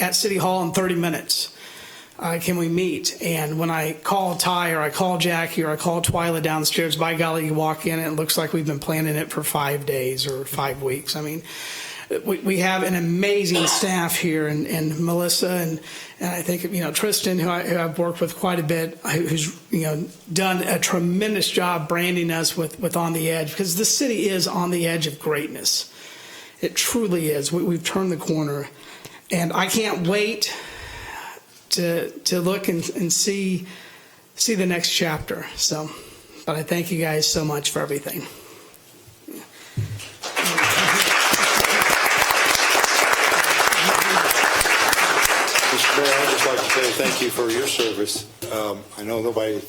at City Hall in 30 minutes. Uh, can we meet? And when I call Ty or I call Jackie or I call Twyla downstairs, by golly, you walk in and it looks like we've been planning it for five days or five weeks. I mean, we, we have an amazing staff here and, and Melissa and, and I think, you know, Tristan, who, I, who I've worked with quite a bit, who- who's, you know, done a tremendous job branding us with, with On the Edge because the city is on the edge of greatness. It truly is. We, we've turned the corner, and I can't wait to to look and, and see see the next chapter. So, but I thank you guys so much for everything. Mr. Mayor, I'd just like to say thank you for your service. Um, I know nobody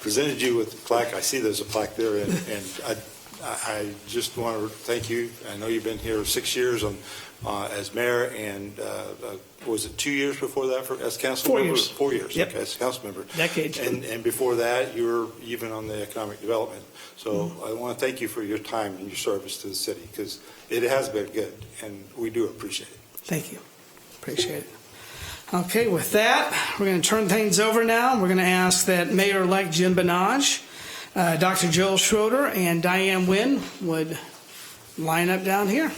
presented you with the plaque. I see there's a plaque there, and and I I- I just want to thank you. I know you've been here six years on- uh, as mayor, and uh, uh, was it two years before that for- as council Four member? years. Four years, Yep. okay, as council member. Decades. And and before that, you were even on the economic development. So Mm-hmm. I want to thank you for your time and your service to the city, because it has been good, and we do appreciate it. Thank you. Appreciate it. Okay, with that, we're going to turn things over now. We're going to ask that Mayor-elect Jim Benage, uh, Dr. Joel Schroeder, and Diane Wynne would line up down here.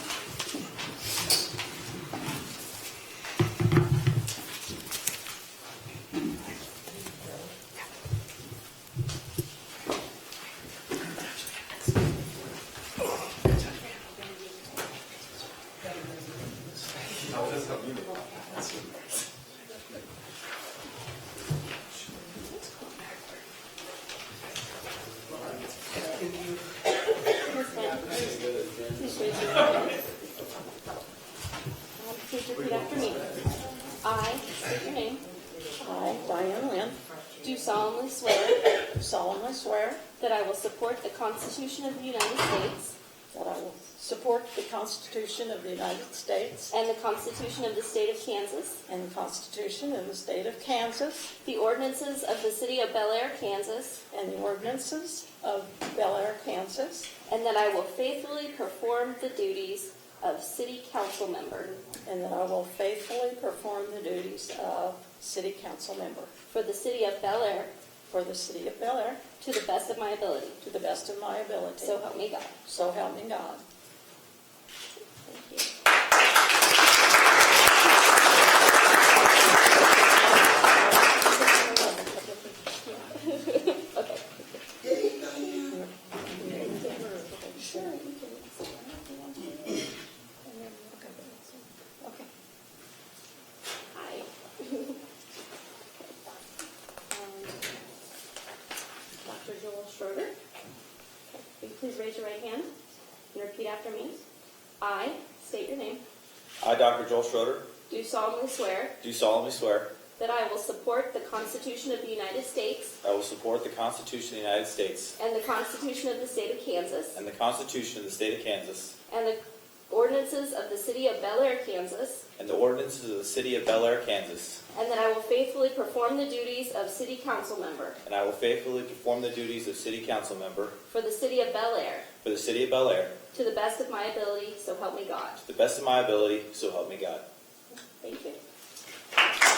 Please repeat after me. I, state your name, I, Diane Lynn, do solemnly swear solemnly swear that I will support the Constitution of the United States that I will support the Constitution of the United States and the Constitution of the State of Kansas, and the Constitution of the State of Kansas the ordinances of the City of Bel Air, Kansas, and the ordinances of Bel Air, Kansas, and that I will faithfully perform the duties of City Council Member and that I will faithfully perform the duties of City Council Member for the City of Bel Air for the City of Bel Air to the best of my ability. to the best of my ability. So help me God. So help me God. Thank you. Sure, you can. sit down if you want to. And then we'll go to the next one. Okay. Hi. Dr. Joel Schroeder. Will you please raise your right hand and repeat after me? I state your name. I, Dr. Joel Schroeder, Do solemnly swear do solemnly swear that I will support the Constitution of the United States I will support the Constitution of the United States and the Constitution of the State of Kansas and the Constitution of the State of Kansas and the ordinances of the City of Bel Air, Kansas, and the ordinances of the City of Bel Air, Kansas, and that I will faithfully perform the duties of City Council Member and I will faithfully perform the duties of City Council Member for the City of Bel Air for the City of Bel Air to the best of my ability, so help me God. to the best of my ability, so help me God. Thank you.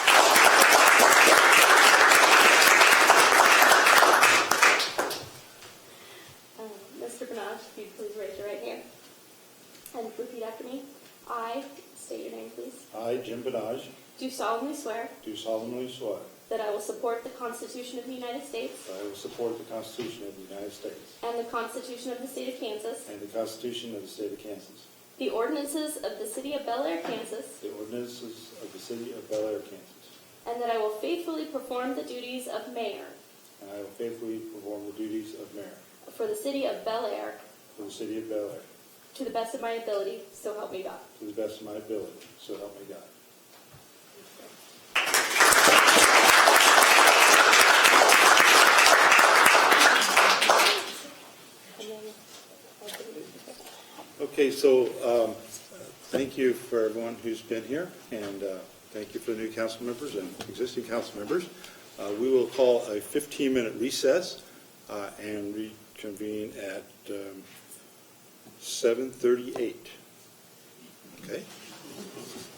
Um, Mr. Benaj, if you please raise your right hand and repeat after me. I, state your name please, I, Jim Benage, do solemnly swear do solemnly swear that I will support the Constitution of the United States that I will support the Constitution of the United States and the Constitution of the State of Kansas, and the Constitution of the State of Kansas, the ordinances of the City of Bel Air, Kansas, the ordinances of the City of Bel Air, Kansas, and that I will faithfully perform the duties of mayor and I will faithfully perform the duties of mayor for the City of Bel Air for the City of Bel Air to the best of my ability, so help me God. to the best of my ability, so help me God. And then- Okay, so um, thank you for everyone who's been here, and uh, thank you for the new council members and existing council members. Uh, We will call a 15-minute recess uh, and reconvene at um, 7:38. Okay?